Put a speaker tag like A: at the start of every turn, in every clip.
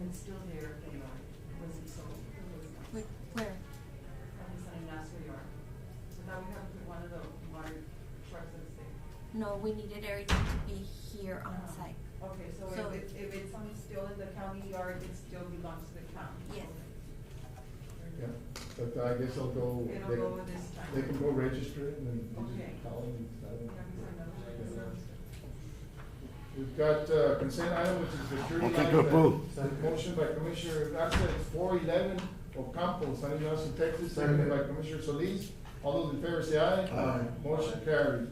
A: and still there they are, was it sold or was it not?
B: Wh- Where?
A: From the Sunny Nassau yard. So now we have to put one of the water trucks that's there.
B: No, we needed everything to be here on
A: Um,
B: site.
A: Okay, so
B: So-
A: if, it- if it's on, still in the county yard, it still belongs to the county?
B: Yes.
C: Yeah, but I guess I'll go.
A: It'll
C: they-
A: go with this time.
C: They can go register it and then you
A: Okay.
C: just call them and tell them.
A: That was another one.
C: We've got uh, consent item, which is the jury.
D: Motion to
C: item.
D: approve.
C: Second. Motion by Commissioner Garza, four eleven Ocampo, San Ignacio, Texas, seconded
D: Second.
C: by Commissioner Solis. All those in favor say aye.
D: Aye.
C: Motion carried.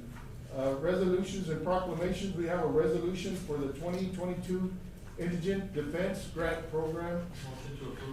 C: Uh, resolutions and proclamations, we have a resolution for the twenty twenty-two Indigent Defense Grant Program.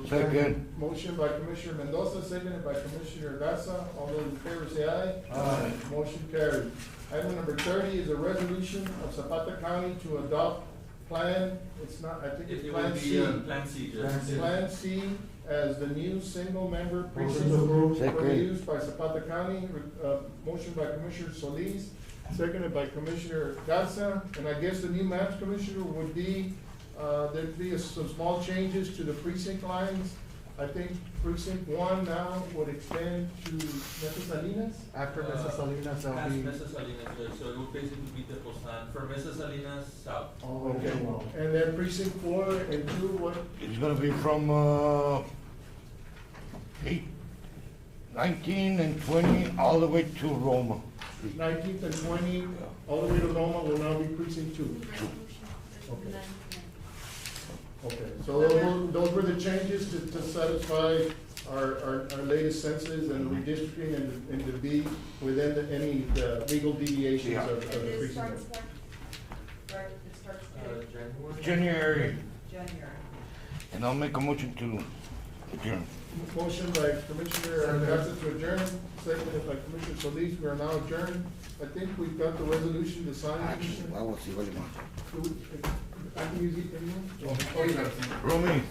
D: Second.
C: Motion by Commissioner Mendoza, seconded by Commissioner Gasa. All those in favor say aye.
D: Aye.
C: Motion carried. Item number thirty is a resolution of Zapata County to adopt plan, it's not, I think
E: It
C: it's
E: it will
C: Plan
E: be
C: C.
E: uh, Plan C. yes.
F: Plan C.
C: Plan C as the new single-member
F: Motion
C: precinct
F: to
C: for
F: approve.
C: the
D: Second.
C: use by Zapata County. Uh, Motion by Commissioner Solis, seconded by Commissioner Garza. And I guess the new maps commissioner would be, uh, there'd be some small changes to the precinct lines. I think precinct one now would extend to Mesa
F: After
E: Uh,
F: Mrs. Salinas,
E: Past
F: there'll be.
E: Mesa Salinas, yes. so it will basically be the Cosan, from Mesa Salinas south. uh,
F: Oh,
C: Okay, and then precinct four and two, what,
D: It's gonna be from, uh, eight, nineteen and twenty, all the way to Roma.
C: nineteenth and twenty, all the way to Loma will now be precinct two. Okay. Okay, so those were, those were the changes to, to satisfy our, our, our latest census and redistricting and, and to be within the, any, uh legal deviations
D: Yeah.
C: of, of the
A: And this
C: precinct.
A: starts when? Right, it starts
E: Uh,
A: in
E: January.
D: January,
A: January.
D: and I'll make a motion to adjourn.
C: Motion by Commissioner Garza to adjourn, seconded by Commissioner Solis, we are now adjourned. I think we've got the resolution to sign.
D: Actually, I
C: Commissioner.
D: will see what you want.
C: Do we- I can use it, anyone?
D: Romy,